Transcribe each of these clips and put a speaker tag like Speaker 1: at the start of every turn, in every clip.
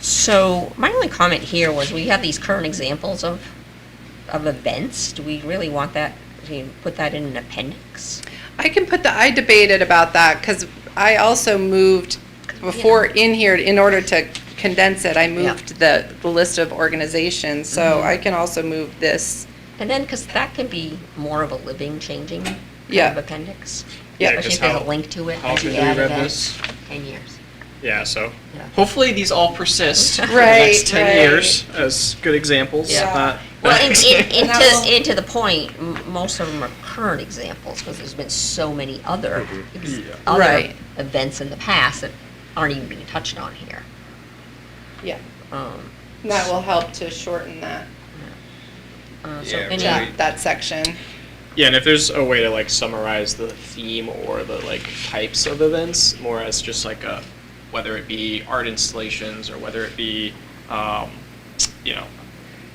Speaker 1: So my only comment here was we have these current examples of, of events. Do we really want that, do you put that in an appendix?
Speaker 2: I can put the, I debated about that, because I also moved before in here, in order to condense it, I moved the, the list of organizations, so I can also move this.
Speaker 1: And then, because that can be more of a living, changing kind
Speaker 2: Yeah.
Speaker 1: of appendix.
Speaker 2: Yeah,
Speaker 1: Especially
Speaker 3: 'cause
Speaker 1: if there's a
Speaker 3: how-
Speaker 1: link to it.
Speaker 3: how
Speaker 1: as you
Speaker 3: often do we
Speaker 1: add
Speaker 3: read
Speaker 1: event,
Speaker 3: this?
Speaker 1: Ten years.
Speaker 3: Yeah, so
Speaker 1: Yeah.
Speaker 3: hopefully these all persist for the
Speaker 2: Right,
Speaker 3: next 10
Speaker 2: right.
Speaker 3: years as good examples.
Speaker 2: Yeah.
Speaker 3: not-
Speaker 1: Well, and, and, and
Speaker 2: Now-
Speaker 1: to, and to the point, m- most of them are current examples, because there's been so many other, ex-
Speaker 3: Yeah.
Speaker 1: other
Speaker 2: Right.
Speaker 1: events in the past that aren't even being touched on here.
Speaker 2: Yeah,
Speaker 1: Um,
Speaker 2: that will help to shorten that,
Speaker 1: uh, so
Speaker 3: Yeah,
Speaker 1: any-
Speaker 3: right.
Speaker 2: that, that section.
Speaker 3: yeah, and if there's a way to like summarize the theme or the like types of events more as just like a whether it be art installations or whether it be um, you know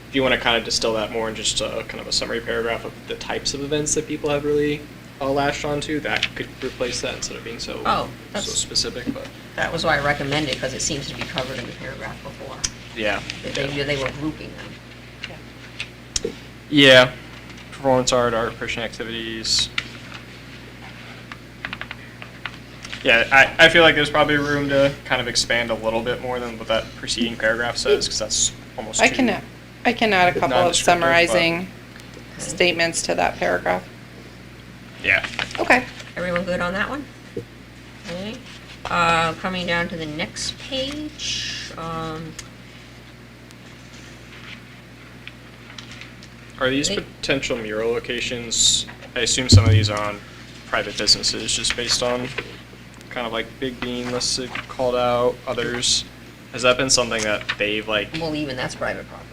Speaker 3: if you want to kind of distill that more in just a kind of a summary paragraph of the types of events that people have really uh, lashed onto, that could replace that instead of being so
Speaker 1: Oh,
Speaker 3: so
Speaker 1: that's-
Speaker 3: specific. But
Speaker 1: That was why I recommended, because it seems to be covered in the paragraph before,
Speaker 3: yeah,
Speaker 1: that they, they were grouping them.
Speaker 3: Yeah, performance art, art appreciation activities. Yeah, I, I feel like there's probably room to kind of expand a little bit more than what that preceding paragraph says, because that's almost.
Speaker 2: I
Speaker 3: too-
Speaker 2: can, uh, I can add a couple of
Speaker 3: Non-descriptive, but-
Speaker 2: summarizing
Speaker 1: Okay.
Speaker 2: statements to that paragraph.
Speaker 3: Yeah.
Speaker 2: Okay,
Speaker 1: Everyone good on that one? Okay. Uh, coming down to the next page, um,
Speaker 3: Are these
Speaker 1: Wait.
Speaker 3: potential mural locations, I assume some of these are on private businesses, just based on kind of like Big Bean listed, called out, others? Has that been something that they've like,
Speaker 1: well, even that's private property.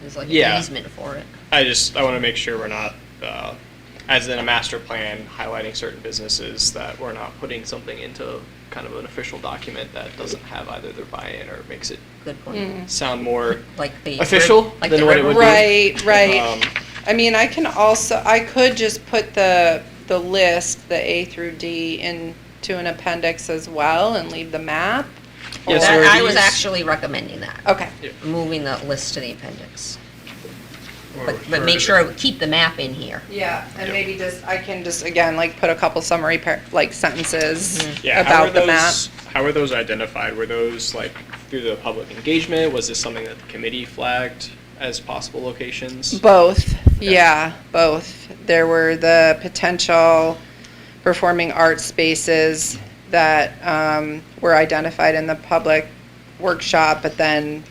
Speaker 1: There's like an
Speaker 3: Yeah.
Speaker 1: easement for it.
Speaker 3: I just, I want to make sure we're not, uh, as in a master plan, highlighting certain businesses that we're not putting something into kind of an official document that doesn't have either their buy-in or makes it
Speaker 1: Good point.
Speaker 3: sound more.
Speaker 1: Like the. rib-
Speaker 3: Official
Speaker 1: like
Speaker 3: than
Speaker 1: the
Speaker 3: what it
Speaker 1: river-
Speaker 3: would be.
Speaker 2: right, right.
Speaker 3: um,
Speaker 2: I mean, I can also, I could just put the, the list, the A through D into an appendix as well and leave the map?
Speaker 3: Yeah, so
Speaker 1: That-
Speaker 3: are
Speaker 1: I was
Speaker 3: these-
Speaker 1: actually recommending that,
Speaker 2: Okay,
Speaker 1: moving the list to the appendix. But,
Speaker 4: Or
Speaker 1: but
Speaker 4: refer
Speaker 1: make
Speaker 4: to
Speaker 1: sure,
Speaker 4: the-
Speaker 1: I keep the map in here.
Speaker 2: yeah, and
Speaker 3: Yep.
Speaker 2: maybe just, I can just, again, like, put a couple summary, par- like, sentences
Speaker 3: Mm-hmm. Yeah, how are
Speaker 2: about the map.
Speaker 3: those, how are those identified? Were those like through the public engagement? Was this something that the committee flagged as possible locations?
Speaker 2: Both,
Speaker 3: Okay.
Speaker 2: yeah, both. There were the potential performing arts spaces that um, were identified in the public workshop, but then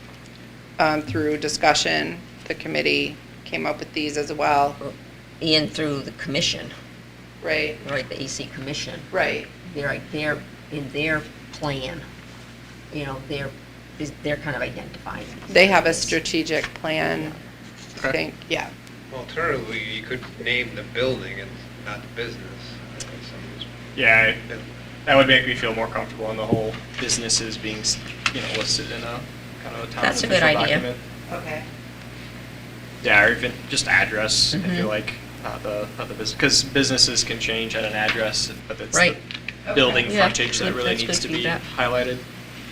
Speaker 2: um, through discussion, the committee came up with these as well.
Speaker 1: In through the commission,
Speaker 2: Right,
Speaker 1: right, the AC commission.
Speaker 2: right.
Speaker 1: they're like, they're, in their plan, you know, they're, is- they're kind of identifying. these
Speaker 2: They have a
Speaker 1: areas.
Speaker 2: strategic plan, I
Speaker 3: Okay.
Speaker 2: think, yeah.
Speaker 4: Alternatively, you could name the building and not the business. I think someone's
Speaker 3: Yeah, I-
Speaker 4: building.
Speaker 3: that would make me feel more comfortable on the whole businesses being, you know, listed in a kind of a town
Speaker 1: That's a good
Speaker 3: official
Speaker 1: idea.
Speaker 3: document.
Speaker 2: Okay.
Speaker 3: Yeah, or even just address, I
Speaker 1: Mhm.
Speaker 3: feel like, not the, not the business, because businesses can change at an address, but it's the
Speaker 1: Right.
Speaker 3: building
Speaker 1: Okay. Yeah,
Speaker 3: frontage that
Speaker 1: that-
Speaker 3: really
Speaker 1: that's
Speaker 3: needs
Speaker 1: good
Speaker 3: to be
Speaker 1: feedback.
Speaker 3: highlighted.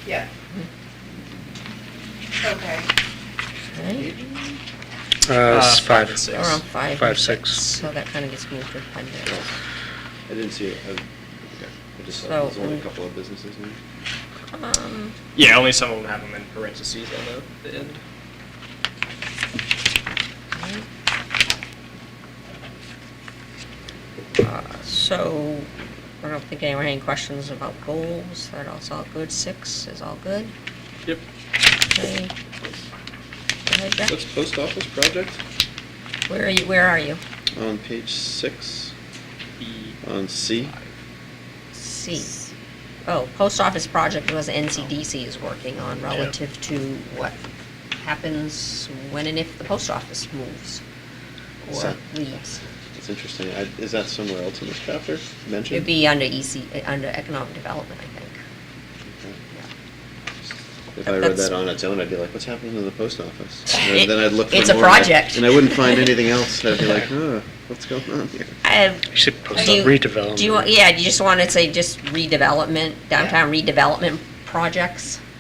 Speaker 2: Yeah. Okay.
Speaker 1: Right?
Speaker 3: Uh,
Speaker 5: Uh, it's five.
Speaker 3: five and
Speaker 1: Or
Speaker 3: six.
Speaker 1: on five.
Speaker 5: Five,
Speaker 1: and
Speaker 5: six.
Speaker 1: So that kind of gets moved to appendix.
Speaker 6: I didn't see it. I, okay. I just saw
Speaker 1: So,
Speaker 6: there's only a
Speaker 1: mm.
Speaker 6: couple of businesses in there.
Speaker 1: Um,
Speaker 3: Yeah, only some of them have them in parentheses on the, the end.
Speaker 1: right. Uh, So, I don't think anyone had any questions about goals, that all's all good, six is all good,
Speaker 3: Yep.
Speaker 1: okay? Go ahead, Jack.
Speaker 6: What's post office project?
Speaker 1: Where are you, where are you?
Speaker 6: On page six, on C.
Speaker 1: C. Oh, post office project was NCDC is working on relative to what happens when and if the post office moves or
Speaker 6: So-
Speaker 1: leaves.
Speaker 6: It's interesting. I, is that somewhere else in this chapter mentioned?
Speaker 1: It'd be under EC, uh, under economic development, I think.
Speaker 6: Okay.
Speaker 1: Yeah.
Speaker 6: If I read
Speaker 1: That's-
Speaker 6: that on its own, I'd be like, what's happening to the post office?
Speaker 1: It-
Speaker 6: And then I'd look for
Speaker 1: it's a
Speaker 6: more, and I-
Speaker 1: project.
Speaker 6: And I wouldn't find anything else. I'd be like, huh, what's going on here?
Speaker 1: I-
Speaker 5: You should post
Speaker 1: do
Speaker 5: up
Speaker 1: you-
Speaker 5: redevelopment.
Speaker 1: Do you, want- yeah, do you just want to say just redevelopment, downtown redevelopment projects?